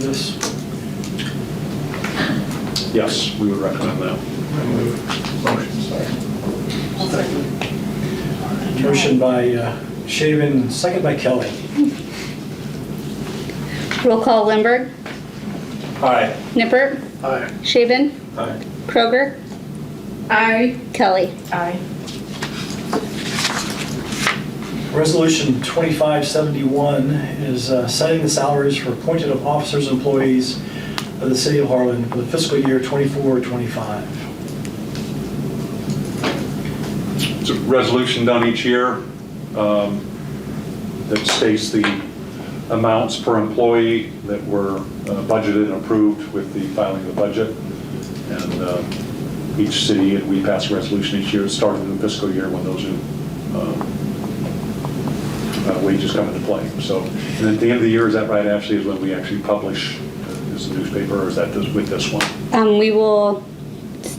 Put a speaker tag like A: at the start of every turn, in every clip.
A: This,
B: Yes, we would recommend that.
C: Motion, sorry.
A: motion by uh, Shaven, second by Kelly.
D: Roll call Lindberg,
A: Aye.
D: Nippert,
A: Aye.
D: Shaven,
A: Aye.
D: Kroger,
E: Aye.
D: Kelly.
E: Aye.
A: Resolution 2571 is uh, setting the salaries for appointed officers and employees of the city of Harlan for the fiscal year 24-25.
B: It's a resolution done each year um, that states the amounts per employee that were uh, budgeted and approved with the filing of the budget. And uh, each city, we pass a resolution each year, starting in the fiscal year when those um, uh, wages come into play. So, and at the end of the year, is that right, Ashley, is when we actually publish, uh, is the newspaper, or is that this- with this one?
D: Um, we will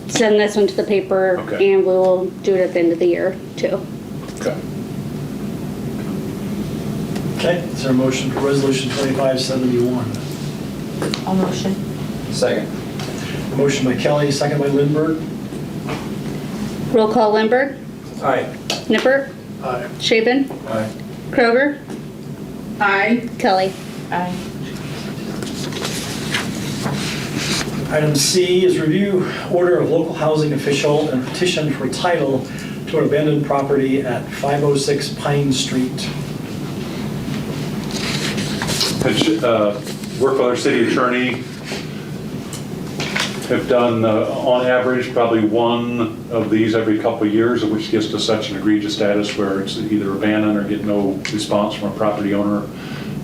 D: send this one to the paper
B: Okay.
D: and we will do it at the end of the year too.
B: Okay.
A: Okay, is there a motion for Resolution 2571?
E: All motion.
C: Second.
A: Motion by Kelly, second by Lindberg.
D: Roll call Lindberg,
C: Aye.
D: Nippert,
A: Aye.
D: Shaven,
C: Aye.
D: Kroger,
E: Aye.
D: Kelly.
E: Aye.
A: Item C is review order of local housing official and petition for title to an abandoned property at 506 Pine Street.
B: Had, uh, worked with our city attorney, have done, uh, on average, probably one of these every couple of years, which gets to such an egregious status where it's either abandoned or get no response from a property owner,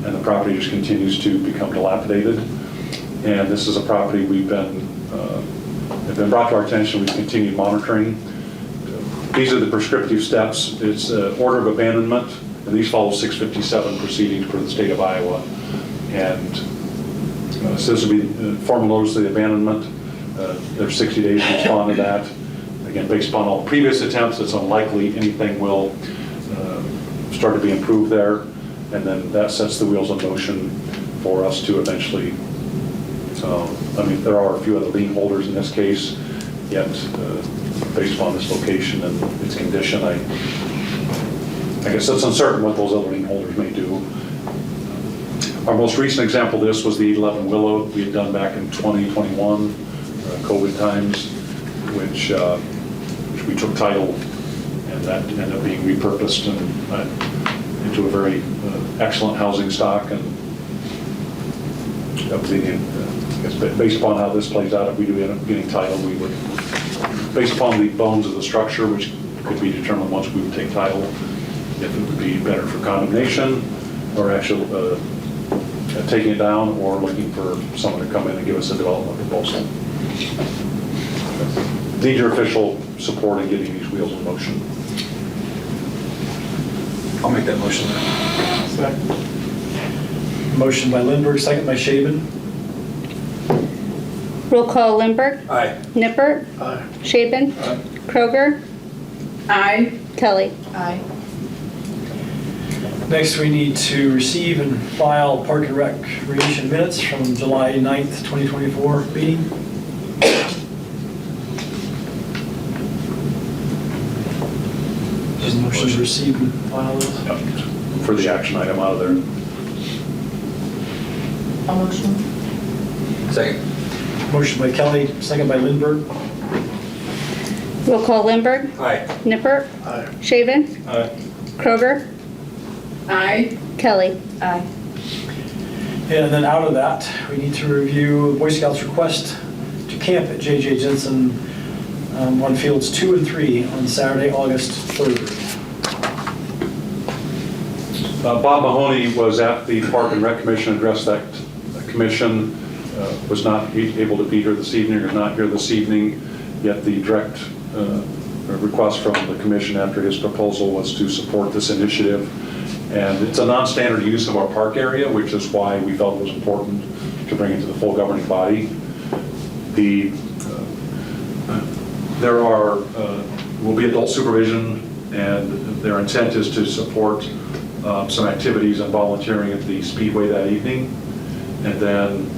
B: and the property just continues to become dilapidated. And this is a property we've been, uh, have been brought to our attention, we've continued monitoring. These are the prescriptive steps. It's uh, order of abandonment, and these follow 657 proceedings for the state of Iowa. And uh, so this would be uh, formal notice of the abandonment. Uh, There's 60 days to respond to that. Again, based upon all previous attempts, it's unlikely anything will uh, start to be improved there. And then that sets the wheels in motion for us to eventually so, I mean, there are a few other lien holders in this case, yet uh, based upon this location and its condition, I, I guess it's uncertain what those other lien holders may do. Our most recent example of this was the 11 Willow we had done back in 2021, uh, COVID times, which, uh, which we took title and that ended up being repurposed and uh, into a very uh, excellent housing stock and opinion, uh, I guess, ba- based upon how this plays out, if we do end up getting title, we would, based upon the bones of the structure, which could be determined once we would take title, if it would be better for condemnation, or actual, uh, uh, taking it down, or looking for someone to come in and give us a development proposal. Need your official support in getting these wheels in motion.
C: I'll make that motion.
A: Motion by Lindberg, second by Shaven.
D: Roll call Lindberg,
C: Aye.
D: Nippert,
A: Aye.
D: Shaven,
C: Aye.
D: Kroger,
E: Aye.
D: Kelly.
E: Aye.
A: Next, we need to receive and file Park and Recreation minutes from July 9th, 2024 meeting. Just motion to receive and file those.
B: Yep. For the action item out of there.
E: All motion.
C: Second.
A: Motion by Kelly, second by Lindberg.
D: Roll call Lindberg,
C: Aye.
D: Nippert,
A: Aye.
D: Shaven,
C: Aye.
D: Kroger,
E: Aye.
D: Kelly.
E: Aye.
A: And then out of that, we need to review Boy Scouts' request to camp at J.J. Jensen um, on fields two and three on Saturday, August 3rd.
B: Uh, Bob Mahoney was at the Park and Rec Commission, addressed that commission, uh, was not be- able to be here this evening, or not here this evening, yet the direct uh, request from the commission after his proposal was to support this initiative. And it's a non-standard use of our park area, which is why we felt it was important to bring it to the full governing body. The there are, uh, will be adult supervision, and their intent is to support um, some activities and volunteering at the Speedway that evening. And then